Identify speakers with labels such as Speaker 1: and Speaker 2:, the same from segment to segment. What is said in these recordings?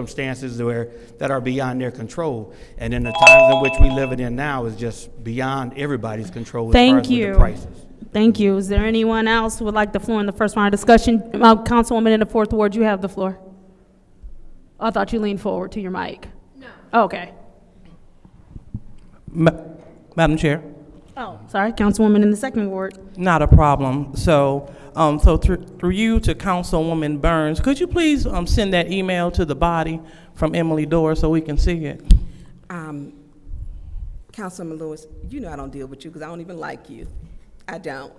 Speaker 1: circumstances where, that are beyond their control. And in the times in which we live it in now is just beyond everybody's control as far as
Speaker 2: Thank
Speaker 1: with
Speaker 2: you.
Speaker 1: the prices.
Speaker 2: Thank you. Is there anyone else who would like the floor in the first round of discussion? Uh, Councilwoman in the fourth ward, you have the floor. I thought you leaned forward to your mic. No. Okay.
Speaker 3: Ma- Madam Chair,
Speaker 2: Oh, sorry, Councilwoman in the second ward.
Speaker 3: not a problem. So, um, so through, through you to Councilwoman Burns, could you please, um, send that email to the body from Emily Dore so we can see it?
Speaker 4: Um, Councilman Lewis, you know I don't deal with you because I don't even like you. I don't.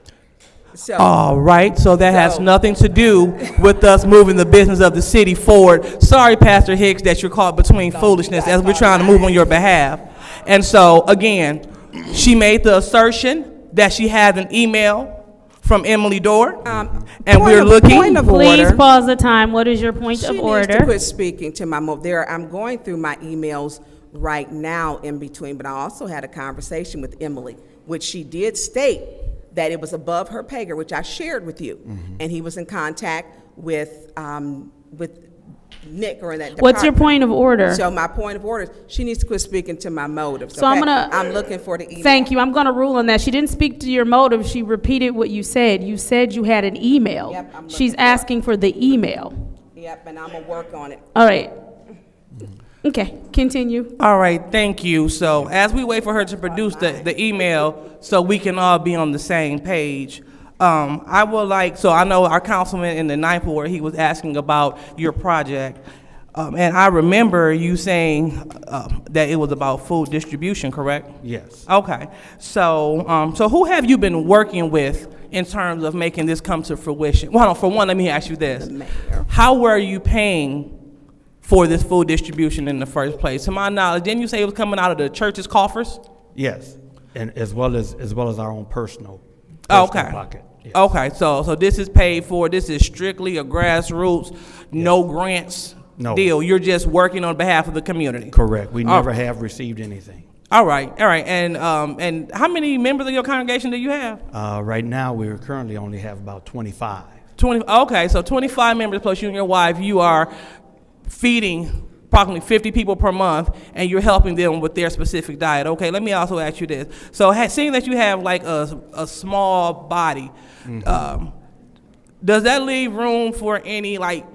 Speaker 4: So,
Speaker 3: All right, so that has
Speaker 4: So-
Speaker 3: nothing to do with us moving the business of the city forward. Sorry, Pastor Hicks, that you're caught between foolishness as we're trying to move on your behalf. And so, again, she made the assertion that she had an email from Emily Dore,
Speaker 4: um.
Speaker 3: and
Speaker 4: point
Speaker 3: we're
Speaker 4: of-
Speaker 3: looking.
Speaker 4: Point of
Speaker 2: Please
Speaker 4: order.
Speaker 2: pause the time. What is your point
Speaker 4: She
Speaker 2: of
Speaker 4: needs to
Speaker 2: order?
Speaker 4: quit speaking to my mo, there, I'm going through my emails right now in between, but I also had a conversation with Emily, which she did state that it was above her pay grade, which I shared with you. And he was in contact with, um, with Nick or in that department.
Speaker 2: What's your point of order?
Speaker 4: So my point of order, is she needs to quit speaking to my motives.
Speaker 2: So I'm
Speaker 4: okay?
Speaker 2: gonna-
Speaker 4: I'm looking for the email.
Speaker 2: Thank you. I'm going to rule on that. She didn't speak to your motive. She repeated what you said. You said you had an email.
Speaker 4: Yep, I'm looking
Speaker 2: She's
Speaker 4: for it.
Speaker 2: asking for the email.
Speaker 4: Yep, and I'm gonna work on it.
Speaker 2: All right. Okay, continue.
Speaker 3: All right, thank you. So as we wait for her to produce the, the email, so we can all be on the same page, um, I would like, so I know our councilman in the ninth ward, he was asking about your project. Um, and I remember you saying, um, that it was about food distribution, correct?
Speaker 1: Yes.
Speaker 3: Okay, so, um, so who have you been working with in terms of making this come to fruition? Well, for one, let me ask you this. How were you paying for this food distribution in the first place? To my knowledge, didn't you say it was coming out of the church's coffers?
Speaker 1: Yes, and as well as, as well as our own personal, personal
Speaker 3: Oh, Okay.
Speaker 1: pocket. Yeah.
Speaker 3: Okay, so, so this is paid for, this is strictly a grassroots, no grants
Speaker 1: No.
Speaker 3: deal? You're just working on behalf of the community?
Speaker 1: Correct, we
Speaker 3: Oh.
Speaker 1: never have received anything.
Speaker 3: All right, all right, and, um, and how many members of your congregation do you have?
Speaker 1: Uh, right now, we currently only have about twenty-five.
Speaker 3: 20, okay, so 25 members plus you and your wife, you are feeding approximately 50 people per month, and you're helping them with their specific diet. Okay, let me also ask you this. So, ha- seeing that you have like a, a small body,
Speaker 1: Mm-hmm.
Speaker 3: um, does that leave room for any like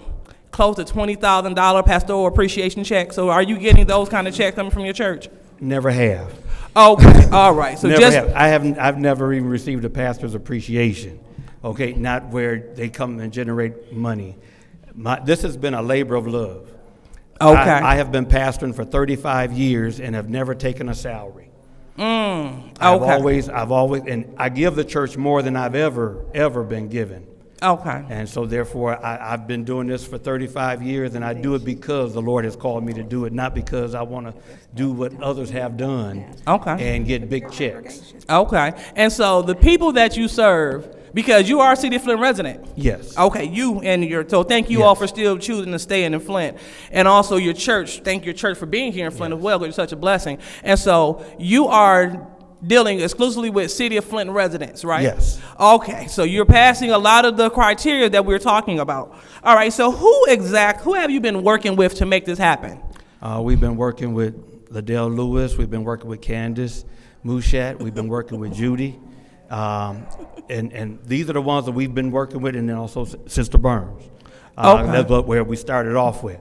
Speaker 3: close to $20,000 pastoral appreciation checks? So, are you getting those kind of checks coming from your church?
Speaker 1: Never have.
Speaker 3: Okay, all right. So,
Speaker 1: never
Speaker 3: just
Speaker 1: have. I haven't. I've never even received a pastor's appreciation. Okay, not where they come and generate money. My, this has been a labor of love. I-
Speaker 3: Okay.
Speaker 1: I, have been pastoring for 35 years and have never taken a salary. I've
Speaker 3: okay.
Speaker 1: always, I've always, and I give the church more than I've ever, ever been given.
Speaker 3: okay.
Speaker 1: And so therefore, I, I've been doing this for 35 years, and I do it because the Lord has called me to do it, not because I want to do what others have done.
Speaker 3: Okay.
Speaker 1: And get big checks.
Speaker 3: Okay. And so the people that you serve, because you are a City of Flint resident.
Speaker 1: Yes.
Speaker 3: Okay, you and your so thank you all
Speaker 1: Yes.
Speaker 3: for still choosing to stay in Flint, and also your church. Thank your church for being here in Flint as well. 'cause It's such a blessing. And so you are dealing exclusively with City of Flint residents, right?
Speaker 1: Yes.
Speaker 3: Okay, so you're passing a lot of the criteria that we're talking about. All right. So who exact who have you been working with to make this happen?
Speaker 1: Uh, we've been working with Liddell Lewis. We've been working with Candace Mushat. We've been working with Judy. Um, and, and these are the ones that we've been working with, and then also S- Sister Burns. Uh,
Speaker 3: Okay.
Speaker 1: That's what, where we started off with.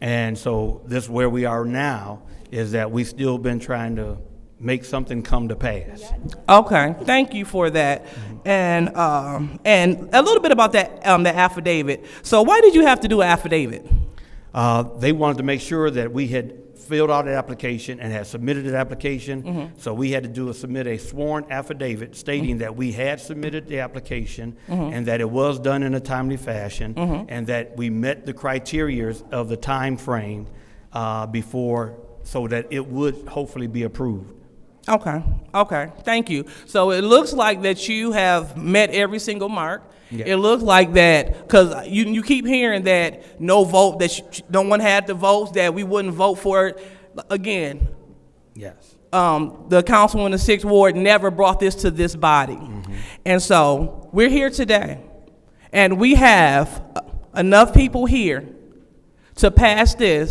Speaker 1: And so this where we are now is that we've still been trying to make something come to pass.
Speaker 3: Okay, thank you for that, and um, and a little bit about that um, the affidavit. So why did you have to do an affidavit?
Speaker 1: Uh, They wanted to make sure that we had filled out an application and had submitted an application. So we had to do a, submit a sworn affidavit stating that we had submitted the application and that it was done in a timely fashion and that we met the criterias of the time frame uh, before, so that it would hopefully be approved.
Speaker 3: Okay, okay, thank you. So it looks like that you have met every single mark.
Speaker 1: Yeah.
Speaker 3: It looks like that because you you keep hearing that no vote that you, no one had the votes that we wouldn't vote for it again.
Speaker 1: Yes.
Speaker 3: um, the council in the sixth ward never brought this to this body. And so we're here today, and we have enough people here to pass this